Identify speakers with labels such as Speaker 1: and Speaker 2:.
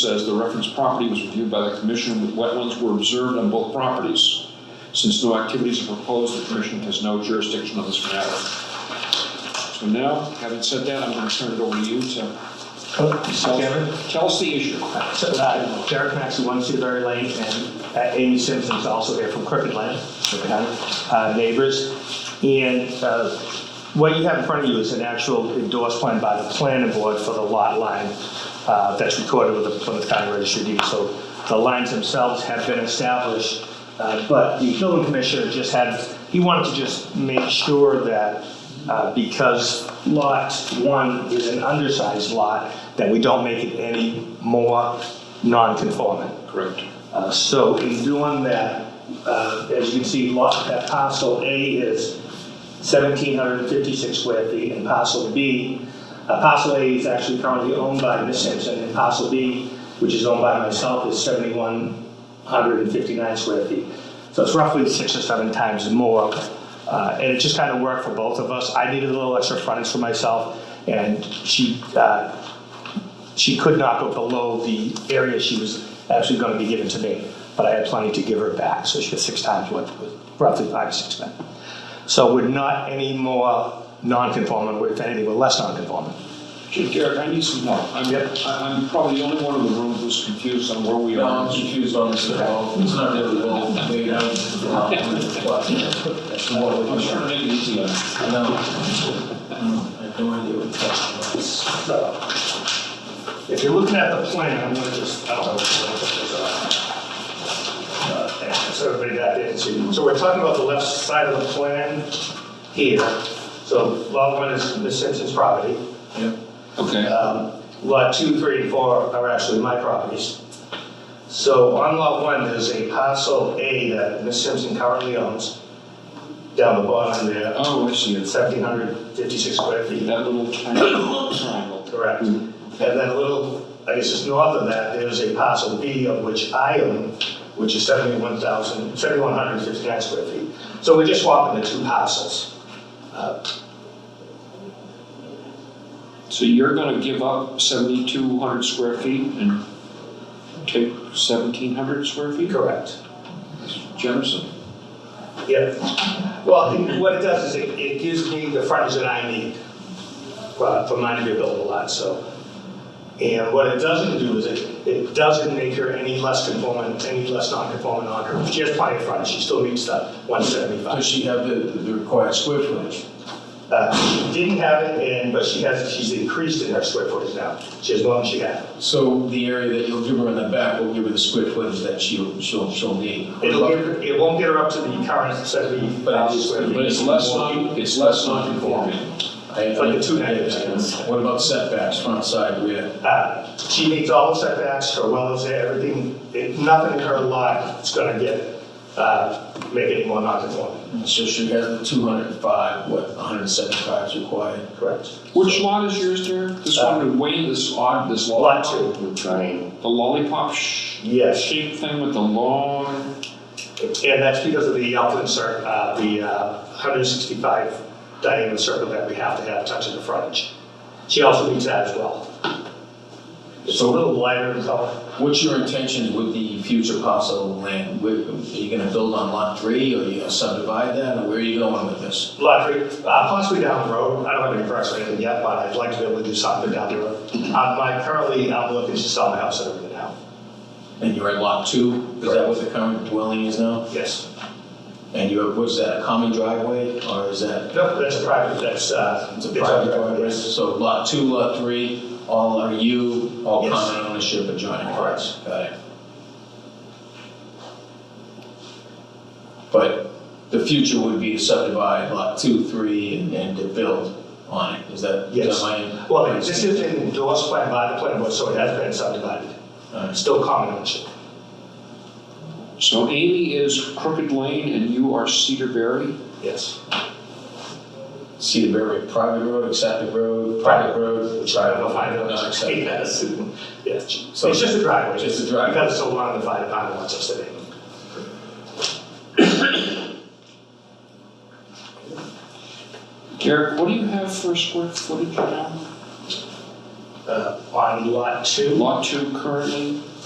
Speaker 1: says the referenced property was reviewed by the commission, with wetlands were observed on both properties. Since no activities are proposed, the commission has no jurisdiction on this matter. So now, having said that, I'm gonna turn it over to you to
Speaker 2: Mr.
Speaker 1: tell,
Speaker 2: Oh, Chairman,
Speaker 1: tell us the issue.
Speaker 2: so, uh, Derek Maxey, One Seabury Lane, and uh, Amy Simpson's also here from Crooked Land, Crooked Land, uh, neighbors. And uh, what you have in front of you is an actual endorsed plan by the planning board for the lot line uh, that's recorded with the Plymouth County Registry of Deeds. So the lines themselves have been established, uh, but the building commissioner just had, he wanted to just make sure that uh, because lot one is an undersized lot, that we don't make it any more non-conforming.
Speaker 1: Correct.
Speaker 2: Uh, So in doing that, uh, as you can see, lot, that parcel A is 1,756 square feet, and parcel B, uh, parcel A is actually currently owned by Ms. Simpson, and parcel B, which is owned by myself, is 7,159 square feet. So it's roughly six or seven times more, uh, and it just kind of worked for both of us. I needed a little extra frontage for myself, and she uh, she could not go below the area she was actually going to be given to me, but I had plenty to give her back, so she got six times what, was roughly five or six times. So we're not any more non-conforming, we're- if anything, we're less non-conforming.
Speaker 1: Gee, Derek, I need some help. I'm,
Speaker 2: Yep.
Speaker 1: I- I'm probably the only one in the room who's confused on where we
Speaker 3: No,
Speaker 1: are.
Speaker 3: I'm confused on this at all. It's not really well laid out.
Speaker 1: I'm just trying to make it easy on you.
Speaker 3: I know. I have no idea what that was.
Speaker 2: So, if you're looking at the plan, I'm going to just, I don't know. if you want to put this on. Uh, So everybody back there can see. So we're talking about the left side of the plan here. So lot one is Ms. Simpson's property.
Speaker 3: Yep.
Speaker 1: Okay,
Speaker 2: Um, Lot 2, 3, and 4 are actually my properties. So on Lot 1, there's a parcel A that Ms. Simpson currently owns, down the bottom there,
Speaker 1: oh, I see, it's
Speaker 2: 1,756 square feet.
Speaker 1: that little tiny triangle.
Speaker 2: Correct. And then a little, I guess it's north of that, there's a parcel B of which I own, which is 71,000, 7,159 square feet. So we're just swapping the two parcels. Uh,
Speaker 1: So you're gonna give up seventy-two hundred square feet and take seventeen hundred square feet?
Speaker 2: Correct.
Speaker 1: Jefferson.
Speaker 2: Yeah, well, it- what it does is it, it gives me the frontage that I need uh, for mine to be a buildable lot, so. And what it doesn't do is it, it doesn't make her any less conformant, any less non-conformant on her. She has plenty of frontage, she still meets the one
Speaker 3: Does
Speaker 2: seventy-five.
Speaker 3: she have the, the required square footage?
Speaker 2: Uh, she didn't have it, and, but she has, she's increased in her square footage now. She has more than she had.
Speaker 3: So the area that you'll give her in the back will give her the square footage that she'll, she'll, she'll need.
Speaker 2: It'll give, her- it won't get her up to the current seventy thousand square feet.
Speaker 1: But it's less non, it's less non-conforming.
Speaker 3: I- I-
Speaker 2: Like the two
Speaker 3: I understand. What about setbacks, front side, rear?
Speaker 2: Uh, She meets all the setbacks, her well is there, everything, it- nothing in her lot is gonna get, uh, make it more non-conforming.
Speaker 3: So she has the two hundred and five, what, hundred and seventy-five is required?
Speaker 2: Correct.
Speaker 1: Which lot is yours, Derek? This one in Wayne, Uh, this odd, this
Speaker 2: Lot
Speaker 1: lollipop?
Speaker 2: two.
Speaker 1: The lollipop sh-
Speaker 2: Yes,
Speaker 1: shaped thing with the long,
Speaker 2: and that's because of the altitude cir, uh, the, uh, hundred and sixty-five diameter circle that we have to have touching the frontage. She also meets that as well. It's a little lighter in color.
Speaker 3: What's your intentions with the future parcel of land? Where- Are you gonna build on lot three, or you gonna subdivide that, or where are you going with this?
Speaker 2: Lottery, uh, possibly down the road, I don't have any price or anything yet, but I'd like to be able to do something down the road. Uh, my, currently, I'm looking to sell my house and everything now,
Speaker 3: And you're at lot two, is that what the current dwelling is now?
Speaker 2: yes.
Speaker 3: And you have, was that a common driveway, or is that?
Speaker 2: No, that's a private, that's, uh.
Speaker 3: It's a private driveway, so lot two, lot three, all are you, all
Speaker 2: Yes.
Speaker 3: common ownership adjoining parts, got it? But the future would be to subdivide lot two, three, and, and to build on it, is that, is
Speaker 2: Yes.
Speaker 3: that my?
Speaker 2: Well, this is an endorsed plan by the planning board, so it has been subdivided,
Speaker 3: Alright.
Speaker 2: still common ownership.
Speaker 1: so Amy is Crooked Lane and you are Cedarberry?
Speaker 2: Yes.
Speaker 3: Cedar River, private road, accepted road, private road.
Speaker 2: Which I will find out.
Speaker 3: No, accepted.
Speaker 2: Yes. Yes, it's
Speaker 3: So-
Speaker 2: just a driveway.
Speaker 3: Just a driveway.
Speaker 2: Because it's a one of the five department lots of city.
Speaker 1: Derek, what do you have for square footage now?
Speaker 4: uh, on lot two.
Speaker 3: Uh-huh.
Speaker 2: Lot two currently